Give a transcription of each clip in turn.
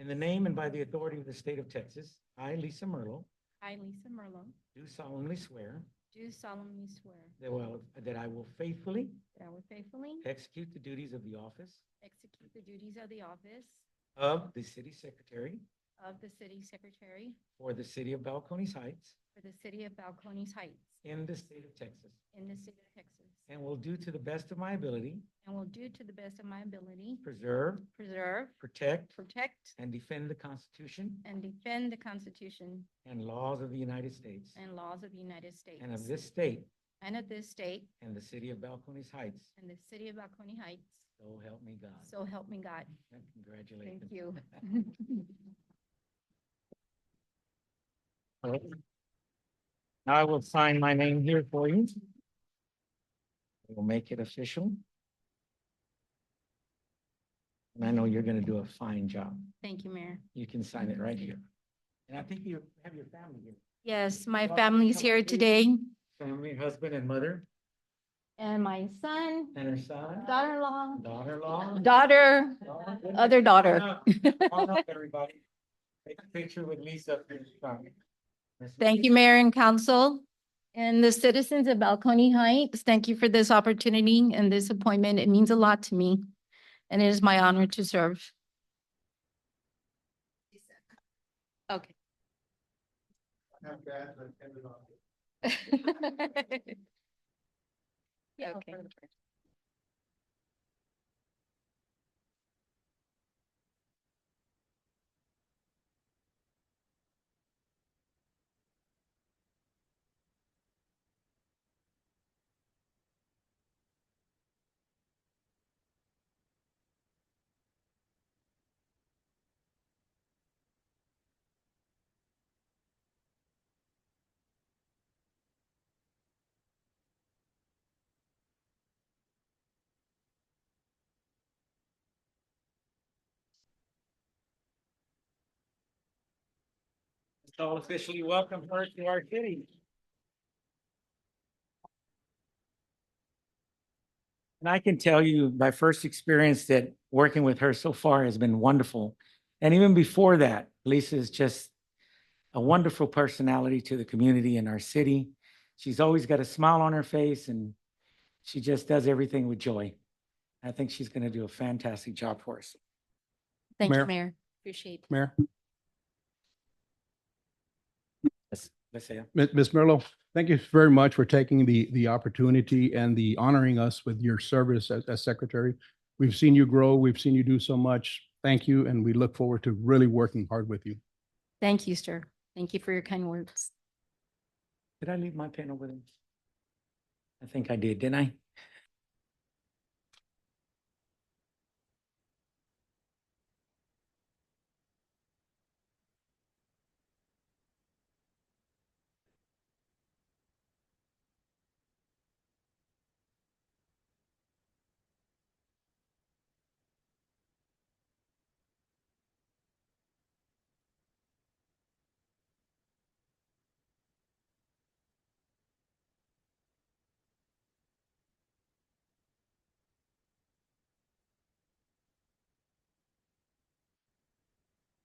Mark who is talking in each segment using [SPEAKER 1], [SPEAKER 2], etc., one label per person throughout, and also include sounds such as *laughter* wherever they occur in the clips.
[SPEAKER 1] In the name and by the authority of the state of Texas, I, Lisa Merlo,
[SPEAKER 2] I, Lisa Merlo,
[SPEAKER 1] do solemnly swear
[SPEAKER 2] do solemnly swear
[SPEAKER 1] that will, that I will faithfully
[SPEAKER 2] that I will faithfully
[SPEAKER 1] execute the duties of the office
[SPEAKER 2] execute the duties of the office
[SPEAKER 1] of the city secretary
[SPEAKER 2] of the city secretary
[SPEAKER 1] for the city of Balcones Heights
[SPEAKER 2] for the city of Balcones Heights
[SPEAKER 1] in the state of Texas,
[SPEAKER 2] in the state of Texas,
[SPEAKER 1] and will do to the best of my ability
[SPEAKER 2] and will do to the best of my ability
[SPEAKER 1] preserve,
[SPEAKER 2] preserve,
[SPEAKER 1] protect,
[SPEAKER 2] protect,
[SPEAKER 1] and defend the Constitution
[SPEAKER 2] and defend the Constitution
[SPEAKER 1] and laws of the United States
[SPEAKER 2] and laws of the United States
[SPEAKER 1] and of this state
[SPEAKER 2] and of this state
[SPEAKER 1] and the city of Balcones Heights.
[SPEAKER 2] and the city of Balcones Heights.
[SPEAKER 1] So help me God.
[SPEAKER 2] So help me God. *laughs*
[SPEAKER 1] Congratulations. *laughs*
[SPEAKER 2] Thank you.
[SPEAKER 1] All right. Now I will sign my name here for you. We'll make it official. And I know you're gonna do a fine job.
[SPEAKER 2] Thank you, Mayor.
[SPEAKER 1] You can sign it right here. And I think you have your family here,
[SPEAKER 2] Yes, my
[SPEAKER 1] Welcome,
[SPEAKER 2] family's
[SPEAKER 1] come
[SPEAKER 2] here
[SPEAKER 1] please.
[SPEAKER 2] today
[SPEAKER 1] family, husband and mother,
[SPEAKER 2] and my son,
[SPEAKER 1] and her son,
[SPEAKER 2] daughter-in-law,
[SPEAKER 1] daughter-in-law.
[SPEAKER 2] daughter, other daughter.
[SPEAKER 1] Come on, Everybody, take a picture with Lisa. for your son.
[SPEAKER 2] Thank you, Mayor and Council, and the citizens of Balcony Heights. Thank you for this opportunity and this appointment. It means a lot to me, and it is my honor to *laughs* serve. Okay.
[SPEAKER 1] Not bad, but everybody.
[SPEAKER 2] Okay.
[SPEAKER 1] So officially welcome her to our city. And I can tell you my first experience that working with her so far has been wonderful. And even before that, Lisa is just a wonderful personality to the community in our city. She's always got a smile on her face and she just does everything with joy. I think she's going to do a fantastic job for us.
[SPEAKER 2] Thank you,
[SPEAKER 3] Mayor.
[SPEAKER 2] Mayor. Appreciate it.
[SPEAKER 3] Mayor.
[SPEAKER 1] Let's say.
[SPEAKER 3] Mi- Ms. Merlo, thank you very much for taking the, the opportunity and the honoring us with your service as, as secretary. We've seen you grow. We've seen you do so much. Thank you. And we look forward to really working hard with you.
[SPEAKER 2] Thank you, sir. Thank you for your kind words.
[SPEAKER 1] Did I leave my pen over there? I think I did, didn't I?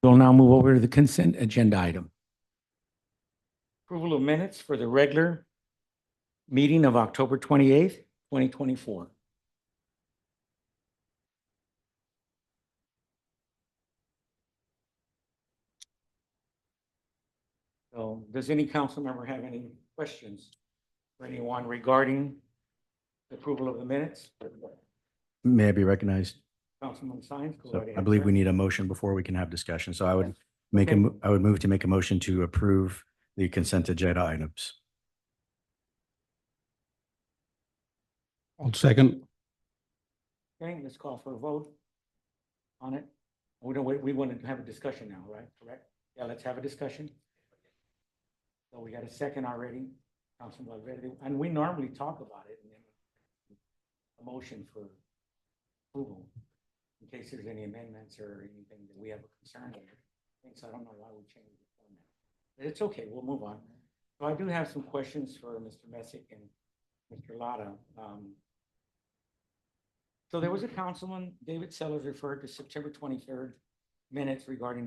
[SPEAKER 1] We'll now move over to the consent agenda item. Approval of minutes for the regular meeting of October twenty-eighth, twenty twenty-four. So does any council member have any questions for anyone regarding the approval of the minutes?
[SPEAKER 4] May I be recognized?
[SPEAKER 1] Councilman Sines? go
[SPEAKER 4] So
[SPEAKER 1] right
[SPEAKER 4] I
[SPEAKER 1] ahead,
[SPEAKER 4] believe
[SPEAKER 1] sir.
[SPEAKER 4] we need a motion before we can have discussion. So I would make, a
[SPEAKER 1] Okay.
[SPEAKER 4] mo- I would move to make a motion to approve the consent agenda items.
[SPEAKER 3] I'll second.
[SPEAKER 1] Okay, let's call for a vote on it. We don't, we, we want to have a discussion now, right? Correct? Yeah, let's have a discussion. So we got a second already, Councilman Valverde, and we normally talk about it and then a motion for approval in case there's any amendments or anything that we have a concern with. And so I don't know why we changed the format. But it's okay, we'll move on. So I do have some questions for Mr. Messick and Mr. Lotta. Um, so there was a councilman, David Sellers referred to September twenty-third minutes regarding